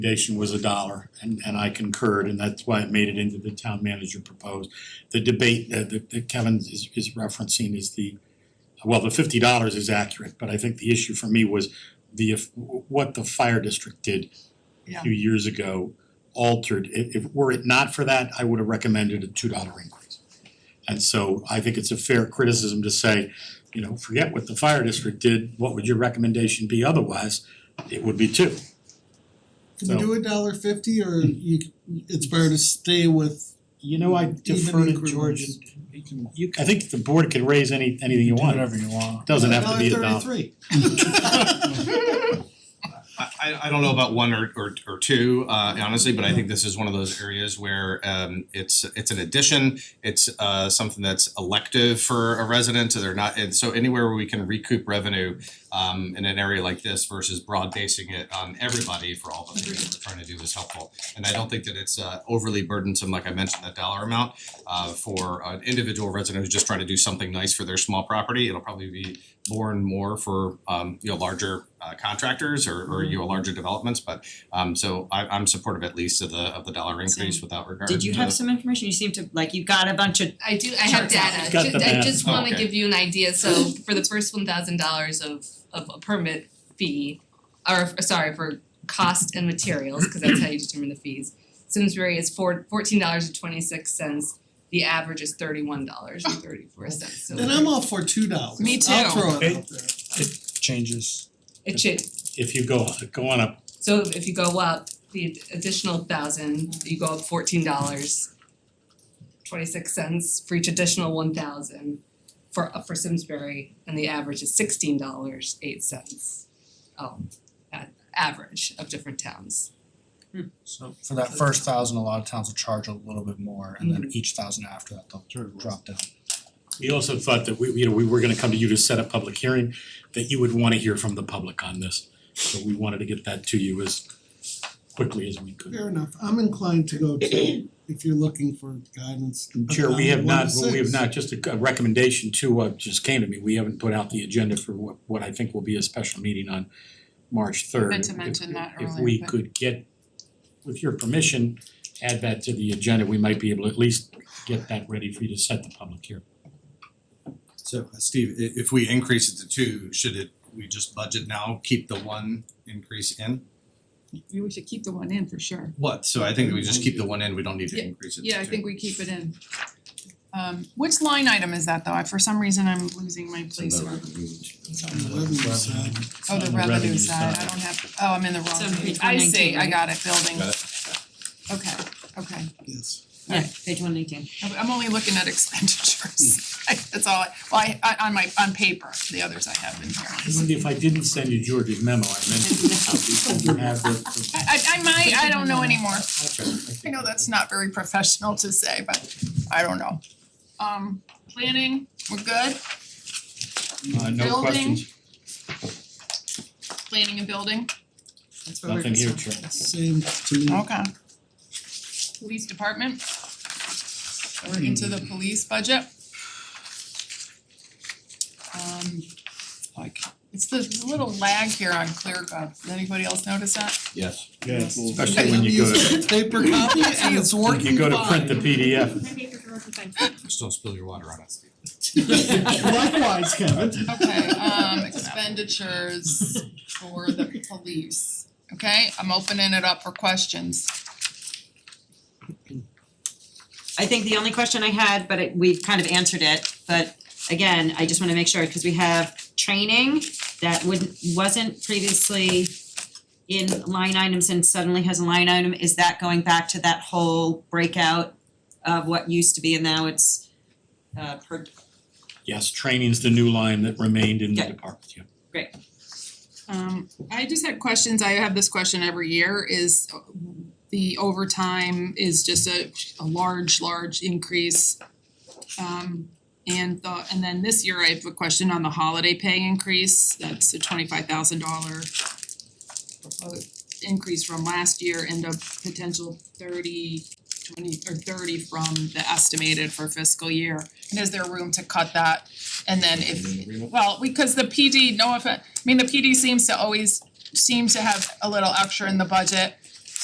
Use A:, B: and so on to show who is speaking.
A: recommendation was a dollar and and I concurred and that's why it made it into the town manager proposed. The debate that that that Kevin is is referencing is the, well, the fifty dollars is accurate, but I think the issue for me was the if what the fire district did a
B: Yeah.
A: few years ago altered, if if were it not for that, I would have recommended a two dollar increase. And so I think it's a fair criticism to say, you know, forget what the fire district did, what would your recommendation be otherwise? It would be two.
B: Can we
A: So-
B: do a dollar fifty or you, it's better to stay with,
A: You know, I defer to
B: Even
A: George
B: increments.
A: and you can, you, I think the board can raise any anything you
C: Do
A: want.
C: whatever you want.
A: Doesn't have to be a dollar.
B: thirty-three.
D: I I I don't know about one or or or two, uh honestly, but I think this is one of those areas where um it's it's an addition. It's uh something that's elective for a resident, so they're not, and so anywhere where we can recoup revenue um in an area like this versus broad basing it on everybody for all the things that we're trying to do is helpful. And I don't think that it's uh overly burdensome, like I mentioned, that dollar amount uh for an individual resident who's just trying to do something nice for their small property. It'll probably be more and more for um you know larger uh contractors or or
E: Mm-hmm.
D: you know larger developments, but um so I I'm supportive at least of the of the dollar increase
E: Same.
D: without regard to
E: Did you have some information? You seem to like you got a bunch of
F: I do, I have
E: Charts out.
F: data,
A: He's got
F: Ju-
A: the
F: I
A: math.
F: just
D: Oh,
F: wanna
D: okay.
F: give you an idea, so for the first one thousand dollars of of a permit fee, or f- sorry, for cost and materials, cause that's how you determine the fees. Simsbury is four fourteen dollars and twenty six cents, the average is thirty one dollars and thirty four cents, so
B: Then I'm all for two dollars.
F: Me
B: I'll
F: too.
B: throw it
C: Okay.
B: out there.
C: Changes.
F: it should,
A: If you go go on up,
F: so if you go up the additional thousand, you go up fourteen dollars twenty six cents for each additional one thousand for uh, for Simsbury and the average is sixteen dollars eight cents. Oh, a- average of different towns.
C: So for that first thousand, a lot of towns will charge a little bit more and then each thousand after that they'll drop down.
A: we also thought that we, you know, we were gonna come to you to set a public hearing, that you would wanna hear from the public on this. So we wanted to get that to you as quickly as we could.
B: Fair enough, I'm inclined to go to, if you're looking for guidance, a
A: Sure, we have
B: dollar, one
A: not,
B: to
A: well, we have
B: six.
A: not, just a a recommendation to what just came to me, we haven't put out the agenda for what what I think will be a special meeting on March third.
G: meant to mention that
A: If
G: earlier,
A: we
G: but-
A: could get, with your permission, add that to the agenda, we might be able to at least get that ready for you to set the public hearing.
D: So uh, Steve, i- if we increase it to two, should it, we just budget now, keep the one increase in?
G: We should keep the one in for sure.
D: What, so I think that we just keep the one in, we don't need to
G: Yeah.
D: increase it to two.
G: Yeah, I think we keep it in. Um which line item is that though? I, for some reason, I'm losing my
D: It's in
G: place
D: the
G: where,
D: revenue.
B: On the revenue side.
G: oh,
A: on
G: the
A: the
G: revenue
A: revenue
G: side, I
A: side.
G: don't have, oh, I'm in the wrong
E: Some page
G: page. I see,
E: 119,
G: I
E: right?
G: got it, building.
D: Got
G: Okay, okay.
B: Yes.
E: yeah, page one eighteen.
G: I'm- I'm only looking at expenditures. I- That's all, I- well, I, I- on my, on paper, the others I have in here.
A: Mindy, if I didn't send you George's memo, I meant to, because you have the- the-
G: I I I might, I don't know anymore.
A: okay.
G: I know that's not very professional to say, but I don't know. Um, planning, we're good?
A: Uh, no
G: Building.
A: questions,
G: Planning and building?
E: That's where we're
A: nothing here,
E: concerned.
A: Chair.
B: Same to me.
G: Okay. Police department? We're into the police budget. Um, like, it's the little lag here on ClearGov. Did anybody else notice that?
D: Yes.
A: Especially when you go to,
B: I'm using paper copy and it's working
A: you go to print the
B: fine.
A: PDF,
D: Just don't spill your water on us, Steve.
B: Likewise, Kevin.
G: Okay, um expenditures for the police, okay? I'm opening it up for questions.
E: I think the only question I had, but it we've kind of answered it, but again, I just wanna make sure, cause we have training that would wasn't previously in line items and suddenly has a line item, is that going back to that whole breakout of what used to be and now it's uh per,
A: yes, training's the new line that remained in the
E: Yeah.
A: department, yeah.
G: Um I just had questions, I have this question every year is uh, the overtime is just a a large, large increase. Um and the and then this year I have a question on the holiday pay increase, that's a twenty five thousand dollar uh, increase from last year and a potential thirty twenty or thirty from the estimated for fiscal year. And is there room to cut that? And then if, well, because the PD, no offense, I mean, the PD seems to always seems to have a little extra in the budget.